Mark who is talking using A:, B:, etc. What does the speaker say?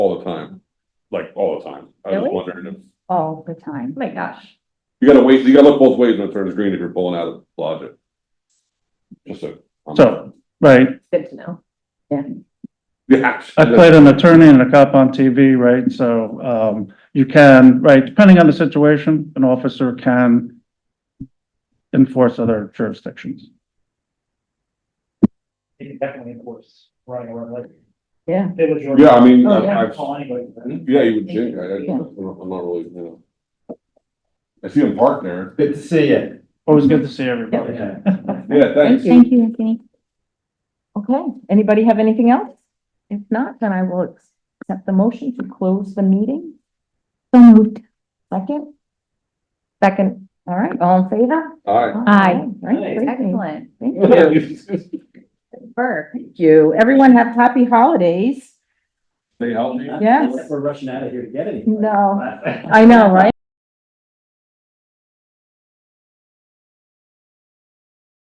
A: I was
B: Really?
A: just wondering if,
B: all the time. Oh My gosh.
A: you gotta wait, you gotta look both ways when it turns green if you're pulling out of the logic. Just a.
C: So, right,
B: Good to know.
A: Yeah.
C: I played an attorney and a cop on TV, right? So, um, you can, right, depending on the situation, an officer can enforce other jurisdictions.
D: It can definitely enforce running a red light.
B: Yeah.
D: It was your-
A: Yeah, I mean,
B: Oh, yeah.
A: I-
D: I'd
A: I've,
D: Call anybody. for that.
A: yeah, you would think, I, I- I'm
B: Yeah.
A: not really, you know. I see him parked there.
E: Good to see you.
C: Always good to see everybody.
E: Yeah.
A: Yeah, thanks.
B: Thank you, Anthony. Okay, anybody have anything else? If not, then I will accept the motion to close the meeting. So moved. Second? Second, all right, all in favor?
A: All right.
B: Aye. Excellent. Thank you. Burke. Thank you. Everyone have happy holidays.
A: Stay healthy.
B: Yes.
E: We're rushing out of here to get anything.
B: No, I know, right?